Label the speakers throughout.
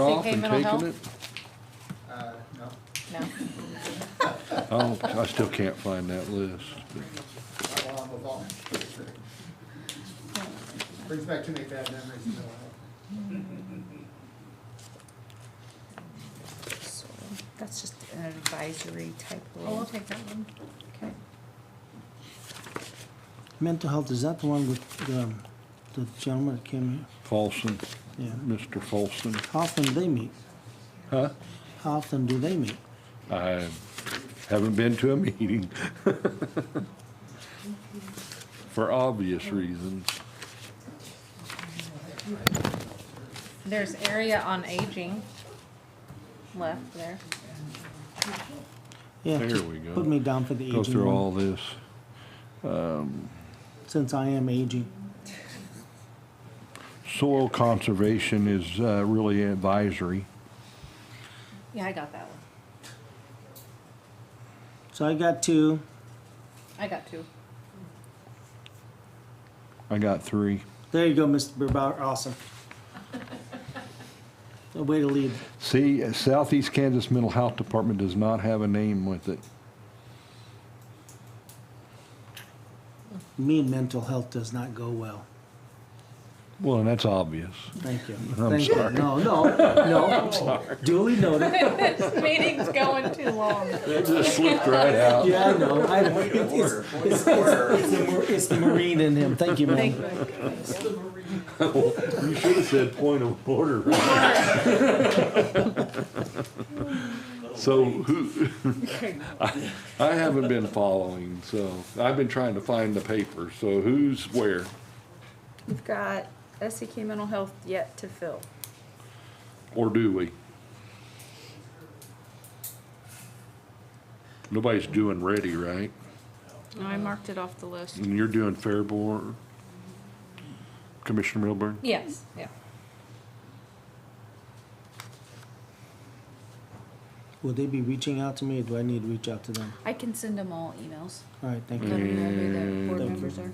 Speaker 1: off and
Speaker 2: mental health?
Speaker 1: taking it?
Speaker 3: Uh, no,
Speaker 2: No.
Speaker 1: Oh, I still can't find that list.
Speaker 3: I will move on. Brings back too many bad memories. you know.
Speaker 2: So That's just an advisory type
Speaker 4: Oh, I'll
Speaker 2: role.
Speaker 4: take that one.
Speaker 2: Okay.
Speaker 5: Mental health, is that the one with the, um, the gentleman that came
Speaker 1: Folsom,
Speaker 5: here? Yeah.
Speaker 1: Mr. Folsom,
Speaker 5: How often they meet?
Speaker 1: huh?
Speaker 5: How often do they meet?
Speaker 1: I haven't been to a meeting. For obvious reasons.
Speaker 2: There's area on aging left there.
Speaker 5: Yeah,
Speaker 1: There
Speaker 5: just
Speaker 1: we go.
Speaker 5: Put me down for the aging.
Speaker 1: Go through
Speaker 5: one,
Speaker 1: all this.
Speaker 5: Since I am aging.
Speaker 1: Soil conservation is uh, really advisory.
Speaker 2: Yeah, I got that one.
Speaker 5: So I got two,
Speaker 2: I got two.
Speaker 1: I got three.
Speaker 5: there you go, Mr. Burbauer, awesome. A way to lead,
Speaker 1: See, Southeast Kansas Mental Health Department does not have a name with it.
Speaker 5: me and mental health does not go well,
Speaker 1: Well, and that's obvious.
Speaker 5: thank you.
Speaker 1: I'm
Speaker 5: Thank you.
Speaker 1: sorry.
Speaker 5: No, no, no, I'm sorry. duly noted,
Speaker 2: This meeting's going too long.
Speaker 1: It just slipped right out.
Speaker 5: yeah, I know, I know. It's-
Speaker 6: Order, point
Speaker 5: it's-
Speaker 6: of order.
Speaker 5: It's the mar- it's the Marine in him, thank you,
Speaker 2: Thank
Speaker 5: man.
Speaker 2: you.
Speaker 1: You should have said point of order. So who, I haven't been following, so I've been trying to find the paper, so who's where?
Speaker 2: We've got SEK mental health yet to fill.
Speaker 1: Or do we? Nobody's doing ready, right?
Speaker 2: No, I marked it off the list.
Speaker 1: And you're doing Fairborn, Commissioner Milburn?
Speaker 2: Yes, yeah.
Speaker 5: Will they be reaching out to me, or do I need to reach out to them?
Speaker 4: I can send them all emails.
Speaker 5: All right, thank you.
Speaker 4: Let me know who the board
Speaker 1: Mm.
Speaker 4: members are.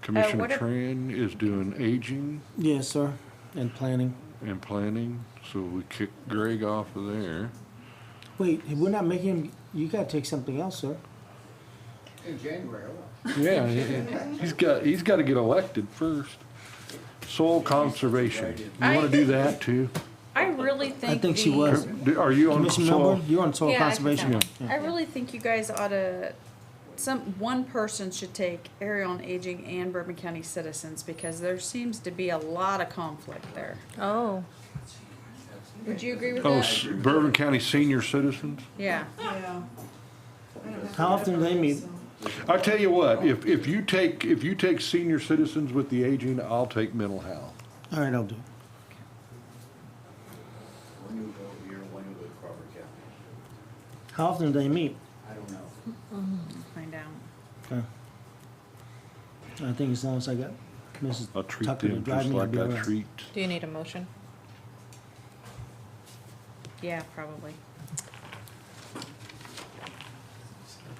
Speaker 1: Commissioner
Speaker 2: what if-
Speaker 1: Tran is doing aging
Speaker 5: Yes, sir, and planning.
Speaker 1: and planning, so we kick Greg off of there.
Speaker 5: Wait, we're not making, him- you gotta take something else, sir.
Speaker 3: In January, I will.
Speaker 1: Yeah, he- he's got, he's gotta get elected first. Soil conservation, you wanna do that too?
Speaker 2: I really think.
Speaker 5: I think she
Speaker 2: the-
Speaker 5: was.
Speaker 1: Do- Are you on
Speaker 5: Commissioner Melbourne,
Speaker 1: soil?
Speaker 5: you're on soil
Speaker 2: Yeah, I think
Speaker 5: conservation.
Speaker 2: that
Speaker 5: Yeah.
Speaker 2: one. I really think you guys ought to, some, one person should take area on aging and Bourbon County citizens because there seems to be a lot of conflict there.
Speaker 4: Oh.
Speaker 2: Would you agree with
Speaker 1: Oh,
Speaker 2: that?
Speaker 1: s- Bourbon County senior citizens?
Speaker 2: Yeah.
Speaker 5: How often do they meet?
Speaker 1: I tell you what, if, if you take, if you take senior citizens with the aging, I'll take mental health.
Speaker 5: All right, I'll do. it.
Speaker 6: One new vote here, one new vote Crawford County.
Speaker 5: How often do they meet?
Speaker 6: I don't know.
Speaker 2: Find out.
Speaker 5: Okay. I think as long as I got Mrs.
Speaker 1: I'll treat
Speaker 5: Tucker to
Speaker 1: them
Speaker 5: drive
Speaker 1: just
Speaker 5: me, I'll
Speaker 1: like
Speaker 5: be all
Speaker 1: I
Speaker 5: right.
Speaker 1: treat.
Speaker 4: Do you need a motion?
Speaker 2: Yeah, probably.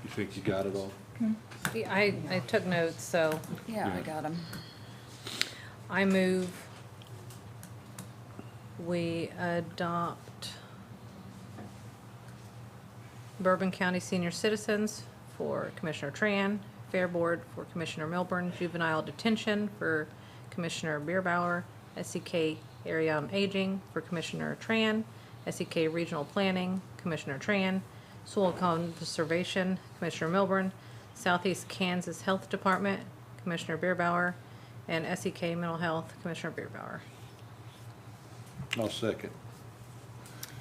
Speaker 1: You think you got it all?
Speaker 2: Hmm.
Speaker 4: I, I took notes, so
Speaker 1: I
Speaker 4: yeah,
Speaker 1: Yeah.
Speaker 4: got them. I move we adopt Bourbon County Senior Citizens for Commissioner Tran, Fair Board for Commissioner Milburn, Juvenile Detention for Commissioner Bierbauer, SEK Area on Aging for Commissioner Tran, SEK Regional Planning, Commissioner Tran, Soil Conservation, Commissioner Milburn, Southeast Kansas Health Department, Commissioner Bierbauer, and SEK Mental Health, Commissioner Bierbauer.
Speaker 1: I'll second.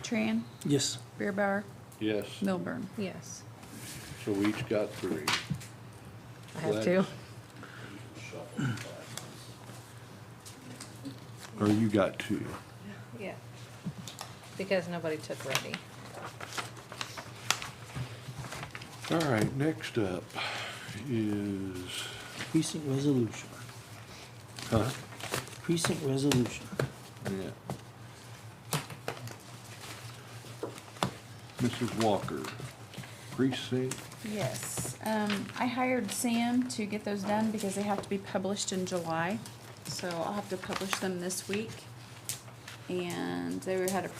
Speaker 2: Tran,
Speaker 5: Yes,
Speaker 2: Beerbauer,
Speaker 1: Yes,
Speaker 2: Milburn.
Speaker 4: Yes,
Speaker 1: so we each got three.
Speaker 4: I have two.
Speaker 1: Or you got two.
Speaker 4: Yeah. Because nobody took ready.
Speaker 1: All right, next up is,
Speaker 5: precinct resolution,
Speaker 1: huh?
Speaker 5: precinct resolution.
Speaker 1: Yeah. Mrs. Walker, precinct,
Speaker 2: Yes, um, I hired Sam to get those done because they have to be published in July. So I'll have to publish them this week. And they had a